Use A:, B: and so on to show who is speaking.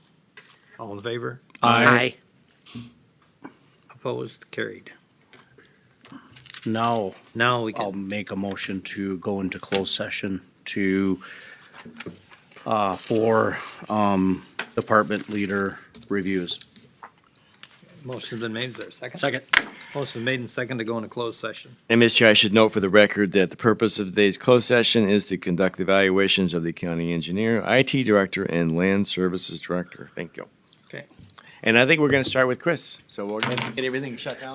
A: All in favor?
B: I
A: Opposed? Carried.
B: Now,
A: Now we
B: I'll
A: can,
B: make a motion to go into closed session to, uh, for, um, department leader reviews.
A: motion's been made, is there a second?
B: Second.
A: Motion's made and second to go into closed session.
C: And Mr. Chair, I should note for the record that the purpose of today's closed session is to conduct evaluations of the county engineer, IT director, and land services director. Thank you.
A: Okay.
C: And I think we're going to start with Chris, so we're going to get everything shut down.